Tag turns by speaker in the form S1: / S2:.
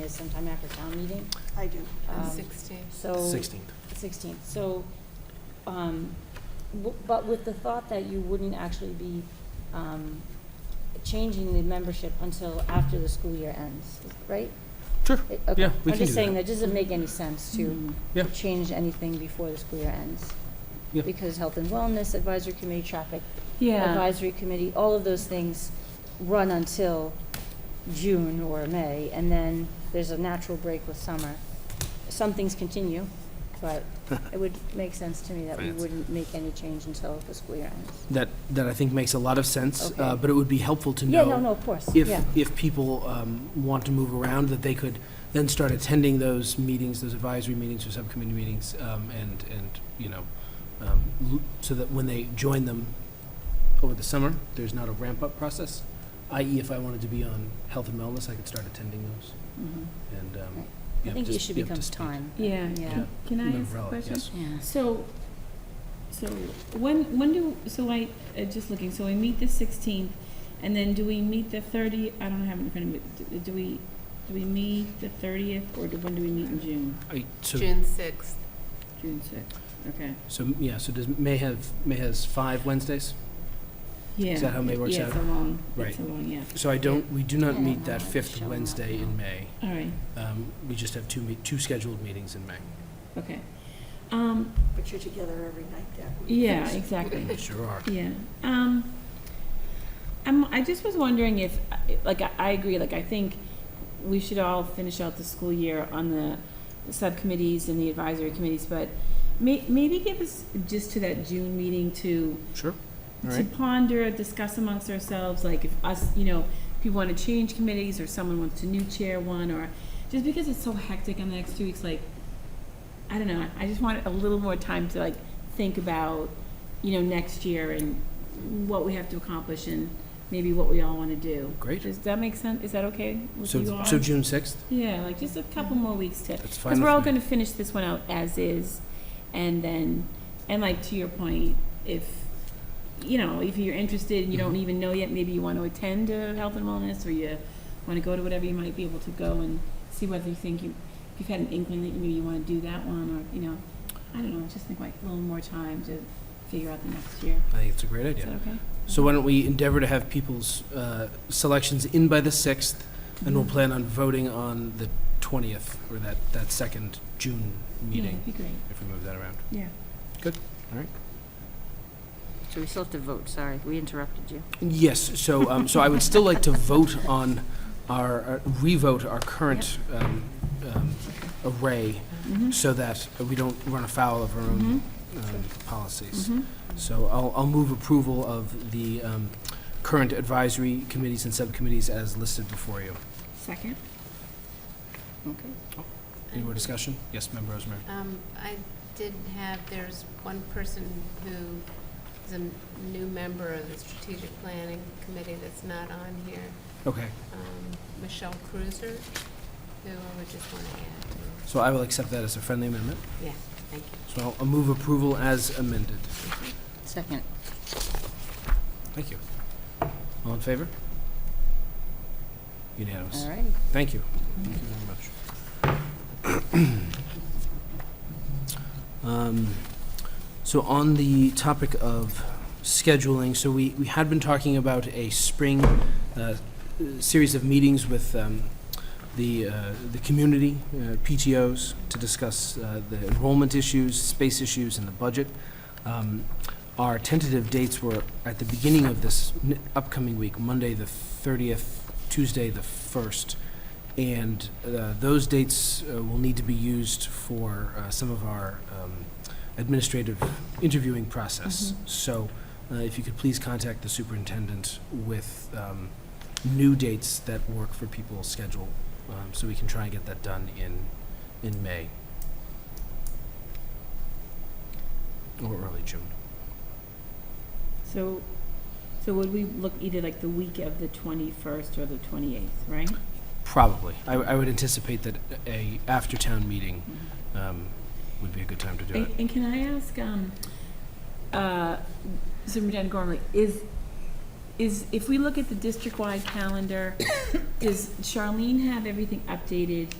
S1: is sometime after town meeting.
S2: I do.
S1: Um,
S3: Sixteen.
S1: So.
S4: 16th.
S1: 16th, so, um, w- but with the thought that you wouldn't actually be um, changing the membership until after the school year ends, right?
S4: Sure,
S1: It- okay.
S4: yeah,
S1: I'm
S4: we can do
S1: just saying,
S4: that. Mm-hmm.
S1: that doesn't make any sense to
S4: Yeah.
S1: to change anything before the school year ends.
S4: Yeah.
S1: Because Health and Wellness Advisory Committee, Traffic
S5: Yeah,
S1: Advisory Committee, all of those things run until June or May, and then there's a natural break with summer. Some things continue, but it would make sense to me that we
S4: Finance.
S1: wouldn't make any change until the school year ends.
S4: That, that I think makes a lot of sense,
S1: Okay.
S4: uh, but it would be helpful to know.
S1: Yeah, no, no, of course, yeah.
S4: If, if people um, want to move around, that they could then start attending those meetings, those advisory meetings or subcommittee meetings, um, and, and, you know, um, l- so that when they join them over the summer, there's not a ramp-up process, i.e. if I wanted to be on health and wellness, I could start attending those,
S1: Mhm.
S4: and, um,
S1: Right.
S4: yeah,
S1: I think it
S4: just
S1: should
S4: be up to
S1: become
S4: speed.
S1: time.
S5: yeah.
S1: Yeah.
S5: Can- Can I ask a
S4: Umbrella,
S5: question?
S4: yes.
S5: So, so when, when do, so I, uh, just looking, so we meet the 16th, and then do we meet the 30th? I don't have it in front of me. Do- Do we, do we meet the 30th, or do- when do we meet in June?
S4: I- so
S3: June sixth.
S5: June 6th, okay.
S4: So, yeah, so does, May have, May has five Wednesdays?
S5: Yeah.
S4: that how May works
S5: Yeah,
S4: out?
S5: it's a long,
S4: Right.
S5: it's a long, yeah.
S4: So I don't, we do
S1: Yeah,
S4: not
S1: I
S4: meet
S1: don't
S4: that
S1: know,
S4: fifth
S1: showing up
S4: Wednesday in
S1: now.
S4: May.
S5: All right,
S4: Um, We just have two, me- two scheduled meetings in May.
S5: okay. Um,
S2: But you're together every night that week.
S5: yeah, exactly.
S4: We Sure are.
S5: Yeah. Um, I'm, I just was wondering if, like, I, I agree, like, I think we should all finish out the school year on the subcommittees and the advisory committees, but may, maybe give us, just to that June meeting to,
S4: Sure. All
S5: to
S4: right.
S5: ponder, discuss amongst ourselves, like, if us, you know, if you want to change committees, or someone wants to new chair one, or, just because it's so hectic in the next two weeks, like, I don't know, I just want a little more time to, like, think about, you know, next year and what we have to accomplish and maybe what we all want to do.
S4: Great.
S5: Does that make sense? Is that okay with you
S4: So,
S5: all?
S4: so June 6th?
S5: Yeah, like just a couple more weeks to,
S4: That's fine
S5: because we're all
S4: with
S5: going
S4: me.
S5: to finish this one out as is, and then, and like to your point, if, you know, if you're interested and you don't
S4: Mhm.
S5: even know yet, maybe you want to attend to health and wellness, or you want to go to whatever, you might be able to go and see whether you think you, if you've had an inkling that maybe you want to do that one, or, you know, I don't know, just think like a little more time to figure out the next year.
S4: I think it's a great
S5: Is that
S4: idea.
S5: okay?
S4: So why don't we endeavor to have people's uh, selections in by the 6th, and
S5: Mm-hmm.
S4: we'll plan on voting on the 20th, or that, that second June
S5: Yeah, that'd
S4: meeting,
S5: be great,
S4: if we move that around.
S5: yeah.
S1: So we still have to vote, sorry, we interrupted you.
S4: Yes, so, um, so I would still like to vote on our, uh, re-vote our current um, um, array
S5: Mhm.
S4: so that we don't run afoul of our own um, policies.
S5: Mhm.
S4: So I'll, I'll move approval of the um, current advisory committees and subcommittees as listed before you.
S5: Second?
S1: Okay.
S4: Any more discussion? Yes, Member Rosemary?
S3: Um, I did have, there's one person who is a m- new member of the strategic planning committee that's not on here,
S4: Okay,
S3: um, Michelle Cruiser, who I would just want to add to.
S4: so I will accept that as a friendly amendment.
S3: Yeah, thank you.
S4: So I'll- I'll move approval as amended.
S1: Second.
S4: Thank you. All in favor? Unanimous.
S1: All right.
S4: Thank you. Thank you very much. Um, So on the topic of scheduling, so we, we had been talking about a spring uh, series of meetings with um, the, uh, the community, uh, PTOs, to discuss uh, the enrollment issues, space issues, and the budget. Um, Our tentative dates were at the beginning of this n- upcoming week, Monday the 30th, Tuesday the 1st, and uh, those dates uh, will need to be used for uh, some of our um, administrative interviewing process. So uh, if you could please contact the superintendent with um, new dates that work for people's schedule, um, so we can try and get that done in, in May. Or early June.
S5: So, so would we look either like the week of the 21st or the 28th, right?
S4: Probably. I, I would anticipate that a after-town meeting um, would be a good time to do it.
S5: And and can I ask, um, uh, Superintendent Gormley, is, is, if we look at the district-wide calendar, does Charlene have everything updated